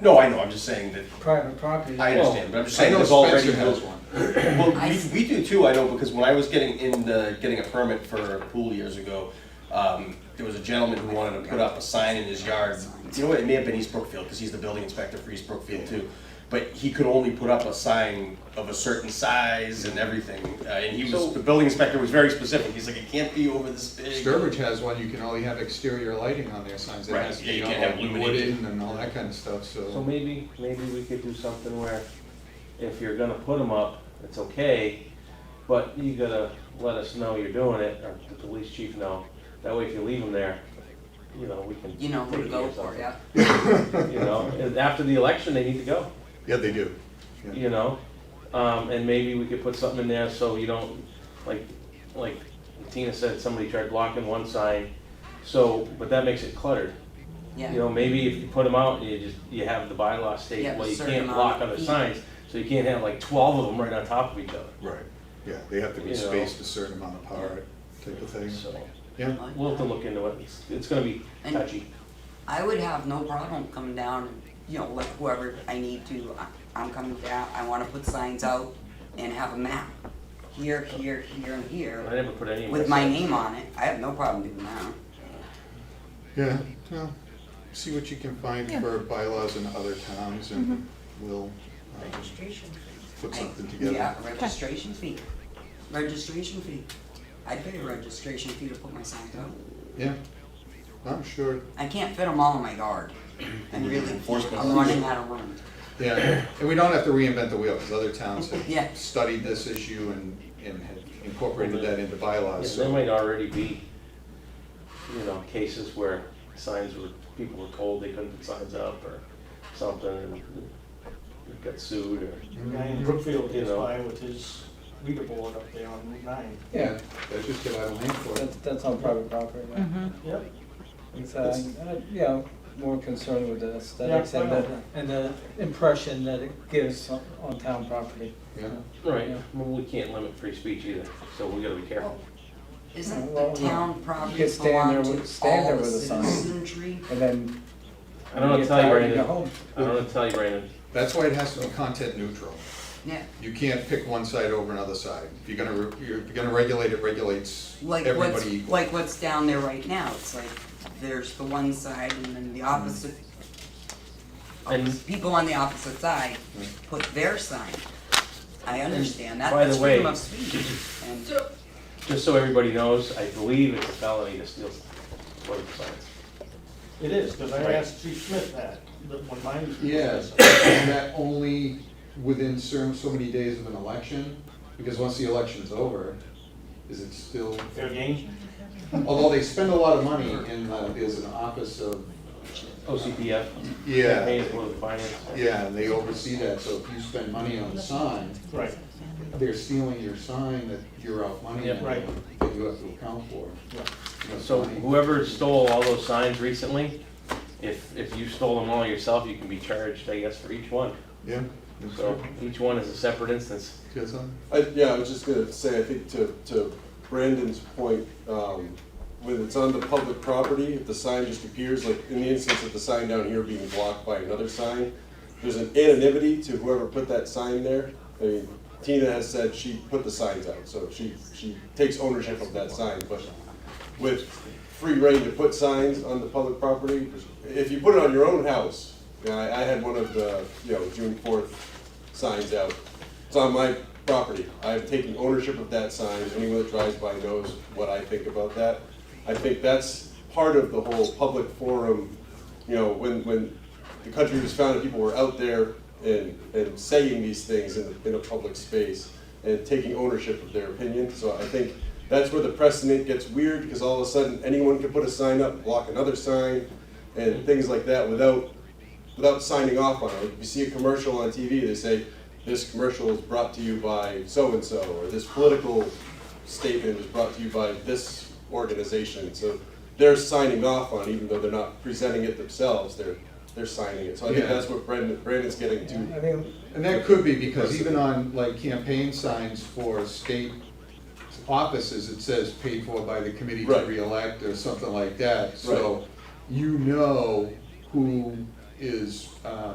No, I know, I'm just saying that, private property. I understand, but I'm just I saying. know that they've already Spencer has- built one. Well, we, we do too, I know, because when I was getting in the, getting a permit for a pool years ago, um, there was a gentleman who wanted to put up a sign in his yard. You know what, it may have been East Brookfield, because he's the building inspector for East Brookfield too. But he could only put up a sign of a certain size and everything, uh, and he So- was, the building inspector was very specific, he's like, it can't be over this big. Sturbridge has one, you can only have exterior lighting on their signs, it Right, has to yeah, be you can't have all illuminated. wooden and all that kind of stuff, So so. maybe, maybe we could do something where if you're gonna put them up, it's okay, but you gotta let us know you're doing it, or the police chief know. That way if you leave them there, you know, we can. You know who take to or go for, something, yeah. You know, and after the election, they need to go, Yeah, they do. Yeah. you know? Um, and maybe we could put something in there so you don't, like, like Tina said, somebody tried blocking one sign. So, but that makes it cluttered. You Yeah, know, maybe if you put them out, you just, you have the bylaw state, You have a well, you certain can't amount block of other feet. signs, so you can't have like twelve of them right on top of each other. Right, yeah, they have to be You know. spaced a certain amount apart, type of thing, So, yeah. we'll have to look into it, it's, it's gonna be And- touchy. I would have no problem coming down and, you know, let whoever I need to, I- I'm coming down, I wanna put signs out and have a map. Here, here, here, and I here, never put any. of with this- my name on it, I have no problem doing that. Yeah, well, see what you can find for bylaws in other towns and we'll uh, put something together. Yeah, registration fee, registration fee. I'd pay a registration fee to put my signs out. Yeah, I'm sure, I can't fit them all in my yard. I really, can't. Enforcement. I'm running out of room. yeah, and we don't have to reinvent the wheel, because other towns Yeah. have studied this issue and, and have incorporated that into Yeah, bylaws, There so. might already be, you know, cases where signs were, people were told they couldn't put signs up or something, and got sued or. The guy in Brookfield gets by with his reader board up there on Route nine. Yeah, They just get out of hand for it. that's, that's on private property, right? Yep. And so, uh, you know, more concerned with the aesthetics Yeah, I and know the, and the impression that it gives on, on town property. Yeah, Right, Yeah. well, we can't limit free speech either, so we gotta be careful. Isn't Well, the no. town You property could stand there belong with- to stand all there the with a sign. citizenry? And then. I don't know what get to tell you, tired and Brandon, go home. I don't know what to tell you, Brandon, that's why it has to be content neutral. Yeah, You can't pick one side over another side. If you're gonna, re- you're- if you're gonna regulate, it regulates like what's, everybody equally. like what's down there right now, it's like, there's the one side and then the opposite. And- People on the opposite side Mm. put their sign. I understand that, by that's the way- freedom of speech. And just so everybody knows, I believe it's a felony to steal political signs. It is, because I Right. asked Chief Smith that, that when mine was. Yes, and that only within certain, so many days of an election, because once the election's over, is it still, Fair game. although they spend a lot of money in, uh, there's an office of. OCPF, campaign Yeah, and political finance. yeah, they oversee that, so if you spend money on the sign, Right, they're stealing your sign that you're out money Yep. in, Right. that you have to account for. Yeah. You know, So money. whoever stole all those signs recently, if, if you stole them all yourself, you can be charged, I guess, for each one. Yeah. So each one is a separate instance. You got something? I, yeah, I was just gonna say, I think to, to Brandon's point, um, when it's on the public property, if the sign just appears, like in the instance of the sign down here being blocked by another sign, there's an anonymity to whoever put that sign there. I mean, Tina has said she put the signs out, so she, she takes ownership of that sign, but with free reign to put signs on the public property, if you put it on your own house, yeah, I, I had one of the, you know, June fourth signs out. It's on my property. I've taken ownership of that sign. Anyone that drives by knows what I think about that. I think that's part of the whole public forum, you know, when, when the country was founded, people were out there and, and saying these things in, in a public space and taking ownership of their opinion. So I think that's where the precedent gets weird because all of a sudden anyone can put a sign up, block another sign and things like that without without signing off on it. Like, If you see a commercial on TV, they say, this commercial is brought to you by so-and-so, or this political statement is brought to you by this organization. So they're signing off on, it, even though they're not presenting it themselves, they're, they're signing it. So I think Yeah. that's what Brandon, Brandon's getting to. I think And that could be because even on like campaign signs for state offices, it says paid for by the committee to Right. reelect or something like that. So you know who is, um,